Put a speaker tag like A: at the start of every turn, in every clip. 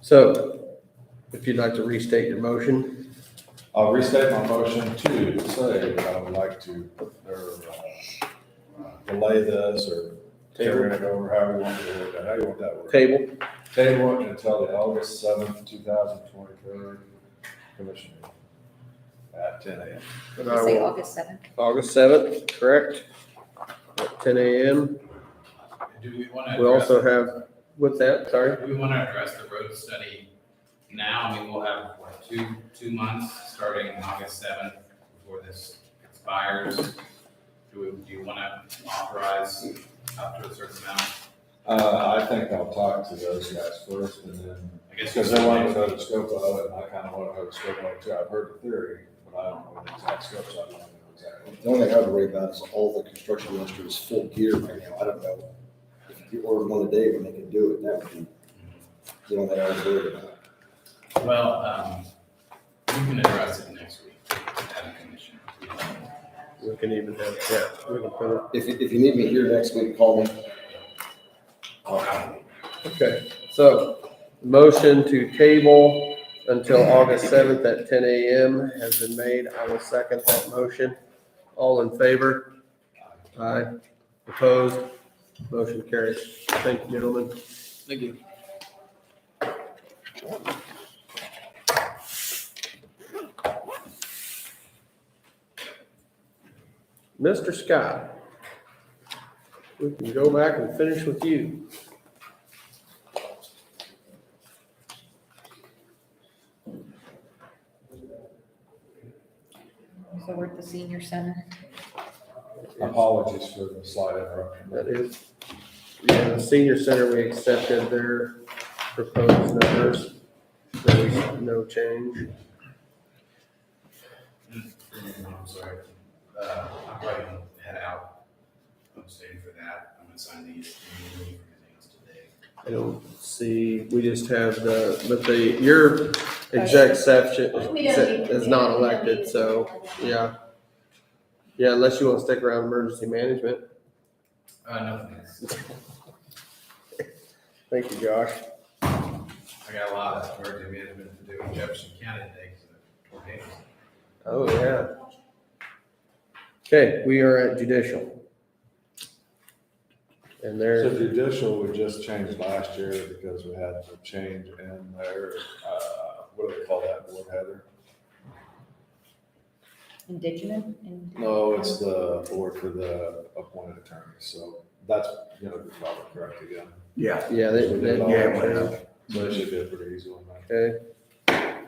A: So if you'd like to restate your motion,
B: I'll restate my motion to say that I would like to, or, uh, delay this, or carry it over, however you want to word that, how you want that word.
A: table,
B: Table it until the August seventh, two thousand twenty-third commission meeting at ten AM.
A: but I
C: Let's say
A: will,
C: August seventh.
A: August seventh, correct? At ten AM.
D: Do we want to?
A: We also have, what's that? Sorry?
D: Do we want to address the road study now? I mean, we'll have, what, two, two months, starting August seventh, before this expires? Do we, do you want to authorize up to a certain amount?
B: Uh, I think I'll talk to those guys first and then,
D: I guess
B: because they want to know the scope of it, and I kind of want to know the scope of it too. I've heard the theory, but I don't know the exact scope, so I don't know exactly.
E: The only thing I would worry about is all the construction industry is full gear right now. I don't know. If you order one a day when they can do it, that would be, the only thing I was worried about.
D: Well, um, we can address it next week at a commission.
A: We can even have, yeah, we can put it.
E: If, you- if you need me here next week, call me.
A: Okay, so motion to table until August seventh at ten AM has been made. I will second that motion. All in favor? Aye. Opposed? Motion carries. Thank you, gentlemen.
D: Thank you.
A: Mr. Scott, we can go back and finish with you.
C: So we're at the senior center.
B: Apologies for the slight interruption.
A: That is, yeah, the senior center, we accepted their proposed numbers. There was no change.
D: I'm sorry. Uh, I'm probably gonna head out. I'm staying for that. I'm gonna sign these. and leave everything else today.
A: I don't see, we just have the, but the, your exec section is not elected, so, yeah. Yeah, unless you want to stick around emergency management.
D: Uh, nothing. else.
A: Thank you, Josh.
D: I got a lot of emergency management to do in Jefferson County today because of tornadoes.
A: Oh, yeah. Okay, we are at judicial. And
B: So
A: there,
B: judicial, we just changed last year because we had to change in there, uh, what do they call that board, Heather?
C: Indigenous. and-
B: No, it's the board for the appointed attorneys, so that's gonna be probably correct again.
F: Yeah,
A: yeah, they,
B: We did
A: they,
B: it all
F: yeah,
B: right
F: well.
B: now, So it should be a pretty easy one, man.
A: okay.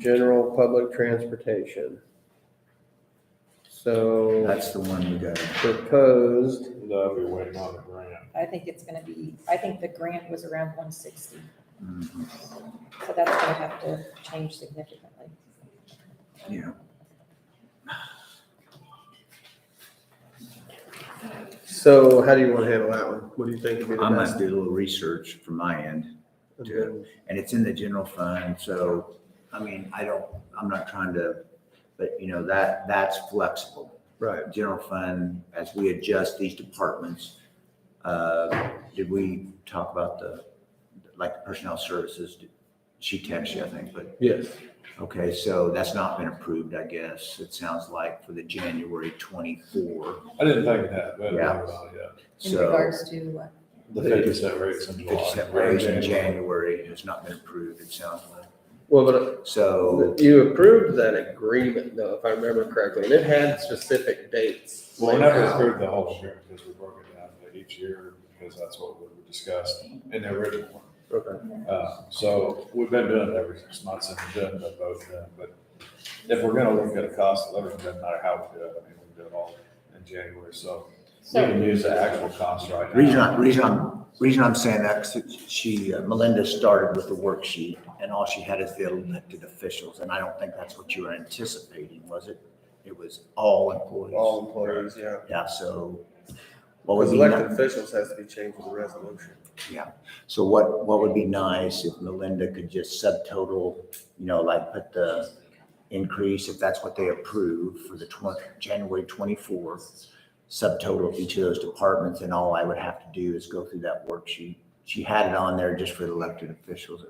A: General public transportation. So
F: that's the one you got.
A: proposed,
B: That'll be waiting on the grant.
C: I think it's gonna be, I think the grant was around one sixty,
F: Mhm,
C: so that's gonna have to change significantly.
F: Yeah,
A: so how do you want to handle that one? What do you think would be the
F: I must
A: best?
F: do a little research from my end,
A: And
F: do it.
A: then-
F: and it's in the general fund, so, I mean, I don't, I'm not trying to, but you know, that, that's flexible.
A: Right,
F: General fund, as we adjust these departments, uh, did we talk about the, like the personnel services? She texted you, I think, but
A: yes.
F: Okay, so that's not been approved, I guess, it sounds like, for the January twenty-four,
B: I didn't think that, but
F: Yeah.
B: uh, yeah,
C: In
F: so.
C: regards to what?
B: the fifty cent rates in July.
F: Fifty cent raise in January has not been approved, it sounds like,
A: Well, but uh,
F: so,
A: you approved that agreement though, if I remember correctly, and it had specific dates.
B: Well, we
A: laid
B: never
A: out.
B: approved the whole year because we broke it down to each year because that's what we discussed in the original one.
A: Okay.
B: Uh, So we've been doing it every six months and we're doing it both then, but if we're gonna look at a cost of living, doesn't matter how we do it, I mean, we can do it all in January, so we can use the actual cost right now.
F: reason, I- reason, I'm reason I'm saying that, 'cause she, uh, Melinda started with the worksheet, and all she had is the elected officials, and I don't think that's what you were anticipating, was it? It was all employees.
A: All employees, yeah.
F: Yeah, so. what would
A: Because
F: be
A: elected
F: ni-
A: officials has to be changed with a resolution.
F: So what, what would be nice if Melinda could just subtotal, you know, like put the increase, if that's what they approve for the twen- January twenty-fourth, subtotal of each of those departments, and all I would have to do is go through that worksheet. She had it on there just for the elected officials,